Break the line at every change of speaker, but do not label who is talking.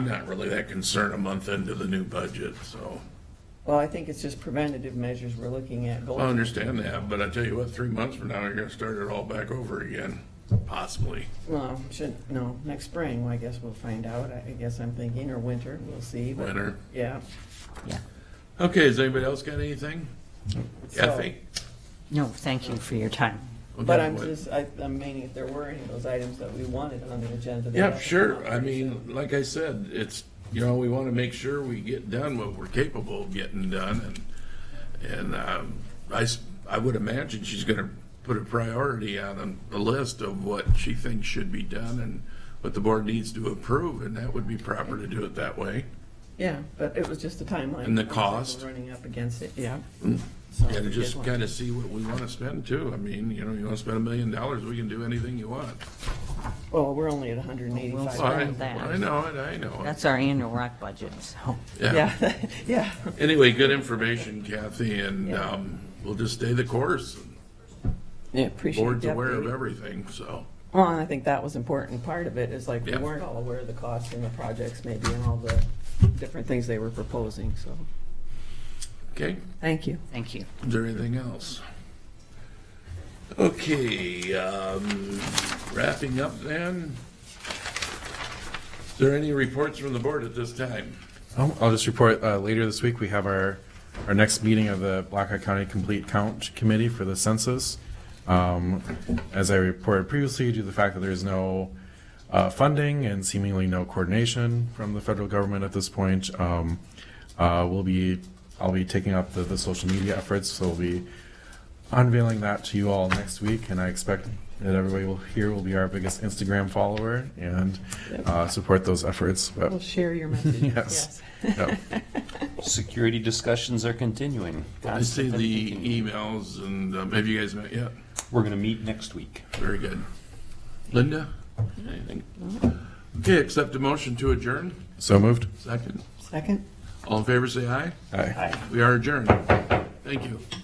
Not really that concerned a month into the new budget, so
Well, I think it's just preventative measures we're looking at.
I understand that, but I tell you what, three months from now, you're gonna start it all back over again, possibly.
No, should, no, next spring, I guess we'll find out, I I guess I'm thinking, or winter, we'll see, but,
Winter.
yeah.
Yeah.
Okay, has anybody else got anything?
So-
Kathy?
No, thank you for your time.
But
Okay,
I'm
what-
just, I, I'm meaning if there were any of those items that we wanted on the agenda. they
Yeah,
have to come
sure.
up
I
first,
mean, like I said, it's, you know, we want to make sure we get done what we're capable of getting done. And, and um, I, s- I would imagine she's going to put a priority out on the list of what she thinks should be done and what the board needs to approve, and that would be proper to do it that way.
Yeah, but it was just the timeline.
And the
We're
cost.
Running up against it, yeah.
And just kind of see what we want to spend too. I mean, you know, you want to spend a million dollars, we can do anything you want.
Well, we're only at hundred and
Well,
eighty-five.
we'll
I,
Spend that.
I know it, I know it.
That's our annual rock budget, so.
Yeah, yeah.
Anyway, good information, Kathy, and
Yeah.
um, we'll just stay the course.
Yeah, appreciate
Board's
the
aware of
update.
everything, so,
Well, and I think that was important part of it, is like, we
Yeah.
weren't all aware of the costs and the projects maybe and all the different things they were proposing, so,
okay,
thank you.
Thank you.
is there anything else? Okay, um, wrapping up then. Is there any reports from the board at this time?
I'll I'll just report, uh, later this week, we have our, our next meeting of the Blackhawk County Complete Count Committee for the census. Um, As I reported previously, due to the fact that there is no uh, funding and seemingly no coordination from the federal government at this point, um, uh, we'll be, I'll be taking up the, the social media efforts, so we'll be unveiling that to you all next week, and I expect that everybody will, here will be our biggest Instagram follower and uh, support those efforts, but
Well, share your message.
Yes. yeah.
Security discussions are continuing.
I see the emails and, um, have you guys met yet?
We're going to meet next week.
Very good. Linda, anything? Okay, accept a motion to adjourn,
So moved.
second.
Second?
All in favor, say aye.
Aye.
We are adjourned. Thank you.